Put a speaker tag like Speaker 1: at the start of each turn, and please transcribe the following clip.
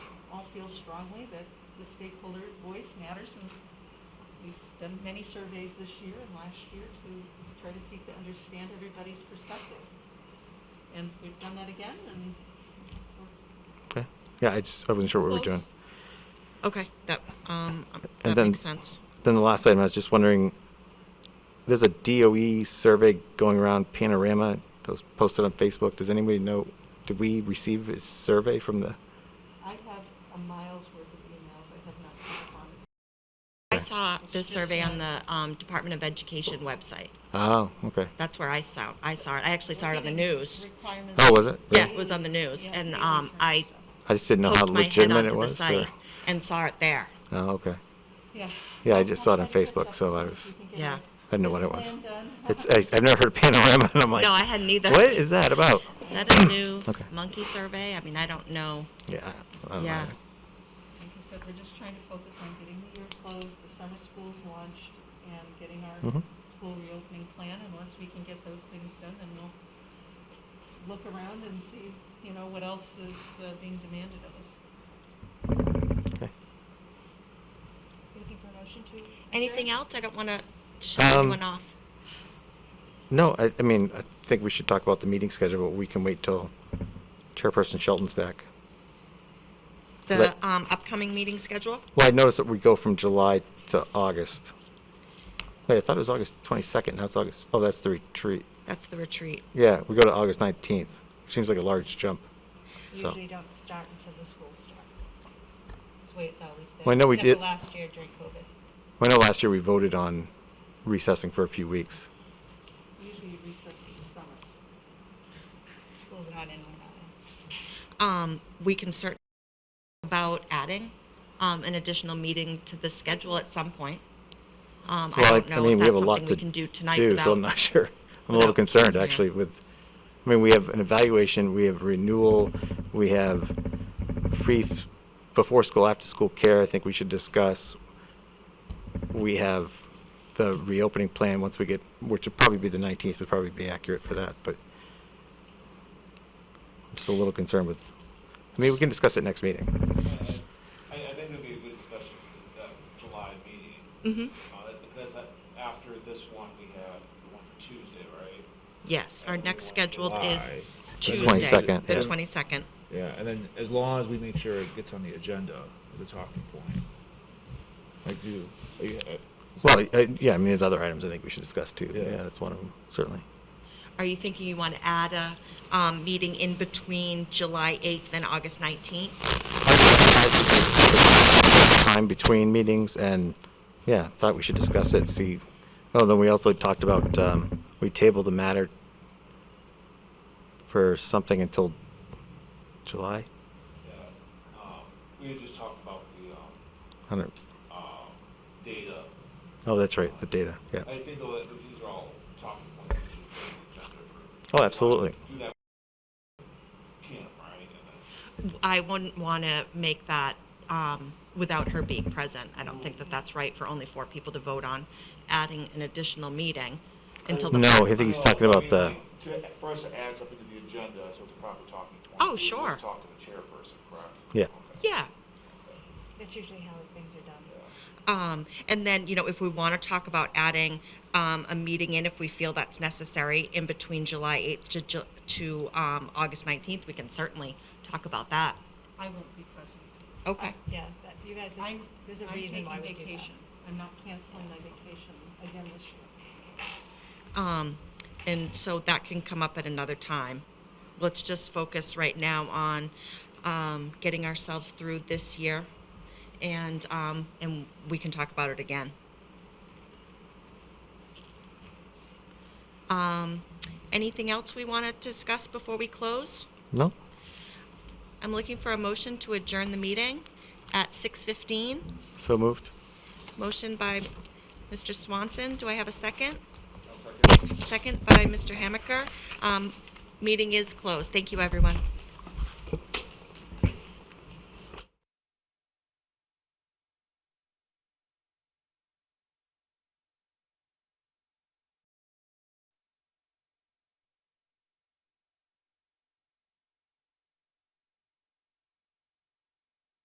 Speaker 1: feels strongly that the stakeholder voice matters, and we've done many surveys this year and last year to try to seek to understand everybody's perspective. And we've done that again, and
Speaker 2: Okay. Yeah, I just, I wasn't sure what we were
Speaker 1: Close.
Speaker 2: doing.
Speaker 3: Okay, that, um,
Speaker 2: And
Speaker 3: that
Speaker 2: then-
Speaker 3: makes sense.
Speaker 2: Then the last item, I was just wondering, there's a DOE survey going around Panorama, those posted on Facebook. Does anybody know, did we receive a survey from the,
Speaker 1: I have a mile's worth of emails I have not picked up on.
Speaker 3: I saw the survey on the, um, Department of Education website.
Speaker 2: oh, okay.
Speaker 3: That's where I saw, I saw it. I actually saw it on the news.
Speaker 1: Requirements.
Speaker 2: Oh, was it?
Speaker 3: Yeah,
Speaker 2: Really?
Speaker 3: it was on the news,
Speaker 1: Yeah,
Speaker 3: and,
Speaker 1: these
Speaker 3: um,
Speaker 1: requirements
Speaker 3: I
Speaker 1: stuff.
Speaker 2: I just didn't know how
Speaker 3: poked my head
Speaker 2: legitimate it
Speaker 3: onto the
Speaker 2: was. or-
Speaker 3: site and saw it there.
Speaker 2: Oh, okay.
Speaker 1: Yeah.
Speaker 2: Yeah, I just saw it on
Speaker 1: I'll try to catch
Speaker 2: Facebook,
Speaker 1: up and
Speaker 2: so I
Speaker 1: see if
Speaker 2: was-
Speaker 1: we can get
Speaker 3: Yeah.
Speaker 1: a-
Speaker 3: I
Speaker 2: didn't know what it
Speaker 1: business
Speaker 2: was.
Speaker 1: plan done.
Speaker 2: It's, I, I've never heard of Panorama, and I'm like,
Speaker 3: No, I hadn't either.
Speaker 2: what is that about?
Speaker 3: Is that a new
Speaker 2: Okay.
Speaker 3: monkey survey? I mean, I don't know.
Speaker 2: Yeah. I don't know.
Speaker 3: Yeah.
Speaker 1: Like I said, we're just trying to focus on getting the year closed, the summer school's launched, and getting our
Speaker 2: Mhm.
Speaker 1: school reopening plan, and once we can get those things done, then we'll look around and see, you know, what else is uh, being demanded of us.
Speaker 2: Okay.
Speaker 1: Looking for a motion to?
Speaker 3: Anything
Speaker 1: adjourn?
Speaker 3: else? I don't want to shut
Speaker 2: Um,
Speaker 3: anyone off.
Speaker 2: No, I, I mean, I think we should talk about the meeting schedule, but we can wait till Chairperson Shelton's back.
Speaker 3: The
Speaker 2: let-
Speaker 3: um, upcoming meeting schedule?
Speaker 2: Well, I noticed that we go from July to August. Wait, I thought it was August 22nd. Now it's August. Oh, that's the retreat.
Speaker 3: That's the retreat.
Speaker 2: Yeah, we go to August 19th. Seems like a large jump. So-
Speaker 4: Usually don't start until the school starts. That's the way it's always been.
Speaker 2: Well, I know we
Speaker 4: except for
Speaker 2: did-
Speaker 4: last year during COVID.
Speaker 2: I know last year we voted on recessing for a few weeks.
Speaker 1: Usually recess for the summer.
Speaker 4: School's not in, we're not in.
Speaker 3: Um, we can start about adding um, an additional meeting to the schedule at some point. Um, I
Speaker 2: Well,
Speaker 3: don't know
Speaker 2: mean,
Speaker 3: if
Speaker 2: we have
Speaker 3: that's
Speaker 2: a lot
Speaker 3: something
Speaker 2: to
Speaker 3: we can do tonight
Speaker 2: do, so I'm
Speaker 3: without.
Speaker 2: not sure. I'm a little
Speaker 3: without-
Speaker 2: concerned,
Speaker 3: yeah.
Speaker 2: actually, with, I mean, we have an evaluation, we have renewal, we have pre, before school, after school care, I think we should discuss. We have the reopening plan once we get, which would probably be the 19th, would probably be accurate for that, but I'm just a little concerned with, I mean, we can discuss it next meeting.
Speaker 5: I, I think it'd be a good discussion for that July meeting. on it, Because that- after this one, we have the one for Tuesday, right?
Speaker 3: Yes, our
Speaker 5: And we
Speaker 3: next
Speaker 5: want
Speaker 3: scheduled is
Speaker 5: July.
Speaker 3: Tuesday,
Speaker 2: 22nd,
Speaker 3: the
Speaker 2: yeah.
Speaker 3: 22nd.
Speaker 5: Yeah, and then as long as we make sure it gets on the agenda as a talking point. Like you, are you- uh,
Speaker 2: Well, I- yeah, I mean, there's other items I think we should discuss too.
Speaker 5: Yeah.
Speaker 2: Yeah, that's one of them, certainly.
Speaker 3: Are you thinking you want to add a um, meeting in between July 8th and August 19th?
Speaker 2: time between meetings and, yeah, thought we should discuss it, see. Oh, then we also talked about, um, we tabled the matter for something until July?
Speaker 5: yeah, um, we had just talked about the, um,
Speaker 2: I don't,
Speaker 5: data.
Speaker 2: oh, that's right, the data, yeah.
Speaker 5: I think though that these are all talking points. that should be on the agenda for-
Speaker 2: Oh, absolutely.
Speaker 5: Do that. Camp, right? And then-
Speaker 3: I wouldn't want to make that um, without her being present. I don't think that that's right for only four people to vote on, adding an additional meeting until the.
Speaker 2: No, I think he's talking
Speaker 5: No, I
Speaker 2: about
Speaker 5: mean,
Speaker 2: the,
Speaker 5: like, To, for us to add something to the agenda, so it's a proper talking point.
Speaker 3: Oh,
Speaker 5: we just
Speaker 3: sure.
Speaker 5: Talk to the chairperson, correct?
Speaker 2: Yeah.
Speaker 5: Okay.
Speaker 3: Yeah.
Speaker 4: That's usually how things are done.
Speaker 3: Um, and then, you know, if we want to talk about adding um, a meeting in, if we feel that's necessary, in between July 8th to, Ju- to um, August 19th, we can certainly talk about that.
Speaker 1: I won't be present.
Speaker 3: Okay.
Speaker 4: Yeah, that, you guys,
Speaker 1: I'm,
Speaker 4: it's, there's a
Speaker 1: I'm
Speaker 4: reason
Speaker 1: taking
Speaker 4: why we do that.
Speaker 1: vacation. I'm not canceling my vacation again this year.
Speaker 3: Um, and so that can come up at another time. Let's just focus right now on um, getting ourselves through this year, and um, and we can talk about it again. Um, anything else we want to discuss before we close?
Speaker 2: no?
Speaker 3: I'm looking for a motion to adjourn the meeting at 6:15.
Speaker 2: So moved?
Speaker 3: Motion by Mr. Swanson. Do I have a second?
Speaker 5: I'll second.
Speaker 3: Second by Mr. Hamaker. Um, Meeting is closed. Thank you, everyone.